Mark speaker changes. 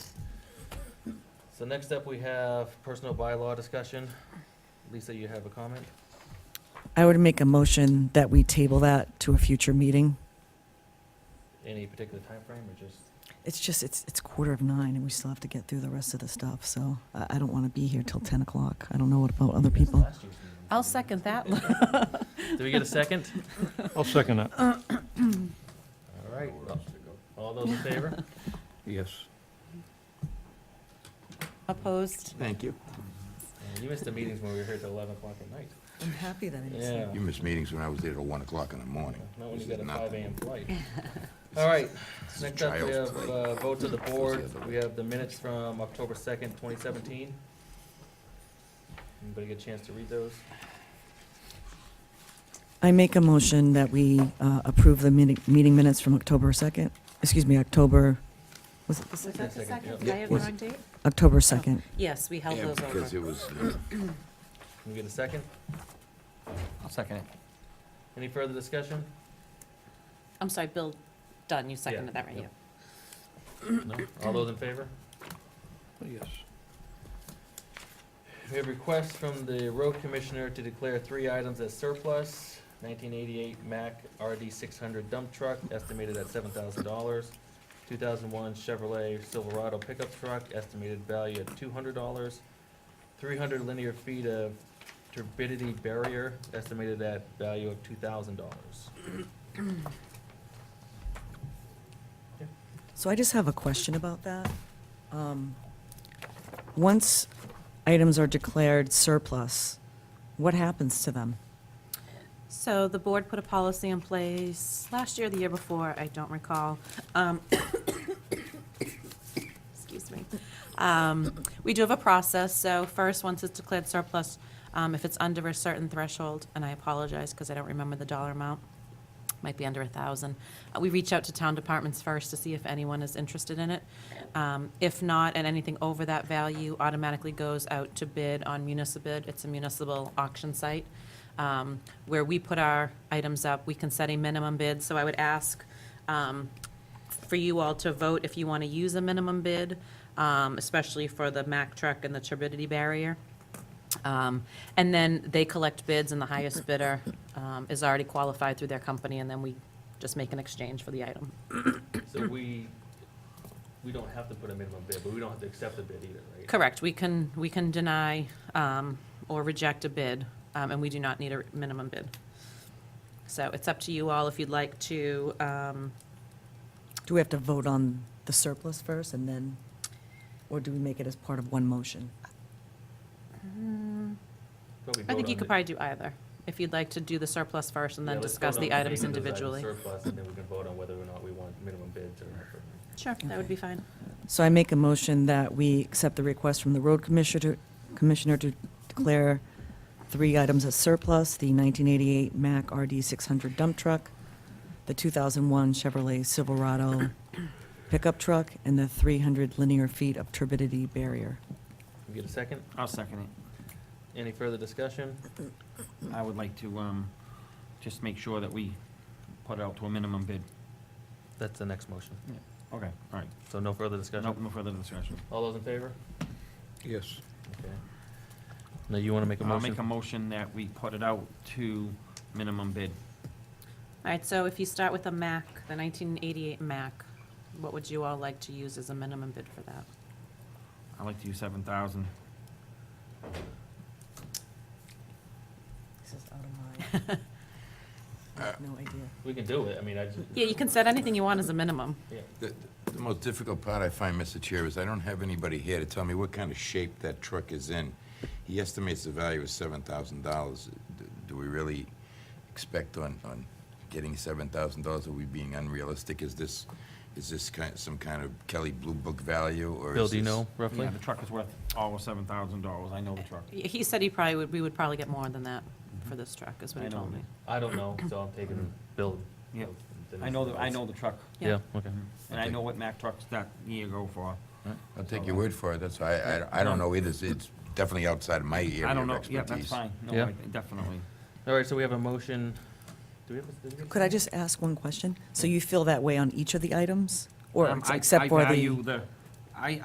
Speaker 1: So next up, we have personal bylaw discussion. Lisa, you have a comment?
Speaker 2: I would make a motion that we table that to a future meeting.
Speaker 1: Any particular time frame, or just?
Speaker 2: It's just, it's, it's quarter of nine, and we still have to get through the rest of the stuff, so I, I don't want to be here till 10 o'clock. I don't know what about other people.
Speaker 1: Last year's meeting.
Speaker 3: I'll second that.
Speaker 1: Do we get a second?
Speaker 4: I'll second that.
Speaker 1: All right. All those in favor?
Speaker 4: Yes.
Speaker 3: Opposed?
Speaker 5: Thank you.
Speaker 1: Man, Uh, You missed the meetings when we were here till eleven o'clock at night.
Speaker 2: I'm happy that I
Speaker 1: Yeah.
Speaker 5: You missed meetings when I was there till one o'clock in the morning.
Speaker 1: Not when you
Speaker 5: This
Speaker 1: got
Speaker 5: is
Speaker 1: a
Speaker 5: nothing.
Speaker 1: five AM flight.
Speaker 5: This
Speaker 1: All
Speaker 5: is-
Speaker 1: right,
Speaker 5: this is
Speaker 1: next up, we
Speaker 5: child's
Speaker 1: have
Speaker 5: play.
Speaker 1: uh, votes of the board.
Speaker 5: This is the other
Speaker 1: We
Speaker 5: way.
Speaker 1: have the minutes from October second, twenty seventeen. Anybody get a chance to read those?
Speaker 2: I make a motion that we uh, approve the meeting, meeting minutes from October 2nd, excuse me, October, was it,
Speaker 3: Was that the
Speaker 1: Second,
Speaker 3: second?
Speaker 1: yeah.
Speaker 3: Did I have the
Speaker 5: Was-
Speaker 3: wrong date?
Speaker 2: October 2nd.
Speaker 3: Yes, we held
Speaker 5: Yeah,
Speaker 3: those
Speaker 5: Because
Speaker 3: over.
Speaker 5: it was, uh,
Speaker 1: Can we get a second?
Speaker 4: I'll second it.
Speaker 1: Any further discussion?
Speaker 3: I'm sorry, Bill Dunn, you seconded that, right?
Speaker 1: yeah.
Speaker 3: Yeah.
Speaker 1: No? All those in favor?
Speaker 4: Yes.
Speaker 1: We have requests from the road commissioner to declare three items as surplus. Nineteen eighty-eight Mack RD six hundred dump truck, estimated at seven thousand dollars. Two thousand one Chevrolet Silverado pickup truck, estimated value at two hundred dollars. Three hundred linear feet of turbidity barrier, estimated at value of two thousand dollars.
Speaker 2: So I just have a question about that. Um, Once items are declared surplus, what happens to them?
Speaker 3: So the board put a policy in place last year, the year before, I don't recall. Um, Excuse me. Um, We do have a process, so first, once it's declared surplus, um, if it's under a certain threshold, and I apologize because I don't remember the dollar amount, might be under a thousand. Uh, We reach out to town departments first to see if anyone is interested in it. Um, If not, and anything over that value automatically goes out to bid on municipal. It's a municipal auction site um, where we put our items up. We can set a minimum bid, so I would ask um, for you all to vote if you want to use a minimum bid, um, especially for the Mack truck and the turbidity barrier. Um, And then they collect bids, and the highest bidder um, is already qualified through their company, and then we just make an exchange for the item.
Speaker 1: So we, we don't have to put a minimum bid, but we don't have to accept the bid either, right?
Speaker 3: Correct, we can, we can deny um, or reject a bid, um, and we do not need a minimum bid. So it's up to you all if you'd like to, um,
Speaker 2: Do we have to vote on the surplus first and then, or do we make it as part of one motion?
Speaker 1: Probably
Speaker 3: I
Speaker 1: vote
Speaker 3: think you
Speaker 1: on
Speaker 3: could
Speaker 1: the-
Speaker 3: probably do either, if you'd like to do the surplus first and
Speaker 1: Yeah,
Speaker 3: then
Speaker 1: let's
Speaker 3: discuss
Speaker 1: vote on
Speaker 3: the items
Speaker 1: making those items
Speaker 3: individually.
Speaker 1: Surplus, and then we can vote on whether or not we want minimum bids or not.
Speaker 3: Sure, that would be fine.
Speaker 2: So I make a motion that we accept the request from the road commissioner, commissioner to declare three items as surplus, the 1988 Mack RD 600 dump truck, the 2001 Chevrolet Silverado pickup truck, and the 300 linear feet of turbidity barrier.
Speaker 1: We Get a second?
Speaker 6: I'll second it.
Speaker 1: Any further discussion?
Speaker 6: I would like to, um, just make sure that we put it out to a minimum bid.
Speaker 1: That's the next motion.
Speaker 6: Okay, all right.
Speaker 1: So no further discussion?
Speaker 6: No, no further discussion.
Speaker 1: All those in favor?
Speaker 4: Yes.
Speaker 1: Okay. Now you want to make a
Speaker 6: I'll make a
Speaker 1: motion?
Speaker 6: motion that we put it out to minimum bid.
Speaker 3: All right, so if you start with a MAC, the 1988 MAC, what would you all like to use as a minimum bid for that?
Speaker 6: I'd like to use seven thousand.
Speaker 2: This is out of my, I have no idea.
Speaker 1: We can do it, I mean, I just.
Speaker 3: Yeah, you can set anything you want as a minimum.
Speaker 1: Yeah.
Speaker 5: the the most difficult part I find, Mr. Chair, is I don't have anybody here to tell me what kind of shape that truck is in. He estimates the value is seven thousand dollars. Do we really expect on, on getting seven thousand dollars? Are we being unrealistic? Is this, is this kind, some kind of Kelly Blue Book value, or is
Speaker 1: Bill, do you
Speaker 5: this-
Speaker 1: know roughly?
Speaker 6: Yeah, the truck is worth all of seven thousand dollars. I know the truck.
Speaker 3: He he said he probably would, we would probably get more than that for this truck, is what
Speaker 6: I
Speaker 3: he
Speaker 6: know.
Speaker 3: told me.
Speaker 1: I don't know, so I'm taking Bill.
Speaker 6: Yeah.
Speaker 1: Dennis
Speaker 6: I know, the- I
Speaker 1: Dennis.
Speaker 6: know the truck.
Speaker 1: Mm-hmm. Yeah, okay.
Speaker 6: And I know what Mack trucks that year go for.
Speaker 5: I'll take your word for it, that's why, I, I- I don't know either, It's- it's definitely outside of my area
Speaker 6: I don't
Speaker 5: of
Speaker 6: know,
Speaker 5: expertise.
Speaker 6: yeah, that's fine. No,
Speaker 1: Yeah.
Speaker 6: I- definitely.
Speaker 1: All right, so we have a motion. Do we have? a- did we get a
Speaker 2: Could I
Speaker 1: second?
Speaker 2: just ask one question? So you feel that way on each of the items? Or
Speaker 6: Um, I-
Speaker 2: except
Speaker 6: I
Speaker 2: for the?
Speaker 6: value the, I,